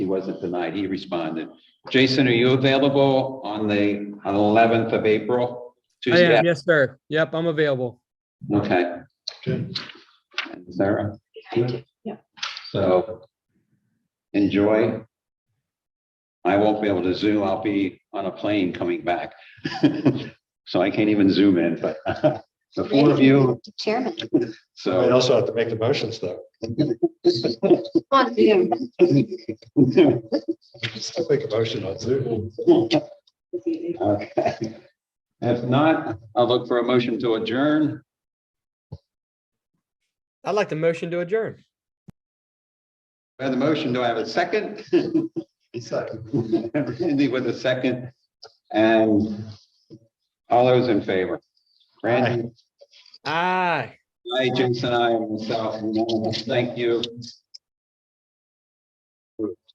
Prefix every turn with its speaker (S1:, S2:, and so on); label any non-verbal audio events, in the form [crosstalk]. S1: wasn't denied. He responded. Jason, are you available on the on the eleventh of April?
S2: I
S1: Tuesday.
S2: am, yes, sir. Yep, I'm available.
S1: Okay.
S3: Okay.
S1: And Sarah?
S4: Yeah.
S1: So enjoy. I won't be able to zoom. I'll be on a plane coming back. [laughs] So I can't even zoom in, but [laughs] the four of you,
S4: Chairman.
S3: I
S1: so. [laughs]
S3: also have to make the motions though.
S4: On Zoom.
S3: Still make a motion on Zoom.
S1: Okay. If not, I'll look for a motion to adjourn.
S2: I'd like to motion to adjourn.
S1: I have the motion. Do I have a second? [laughs] Randy with a second. And all those in favor? Randy,
S2: Aye.
S1: I, Jason, I, and myself, and all of us, thank you.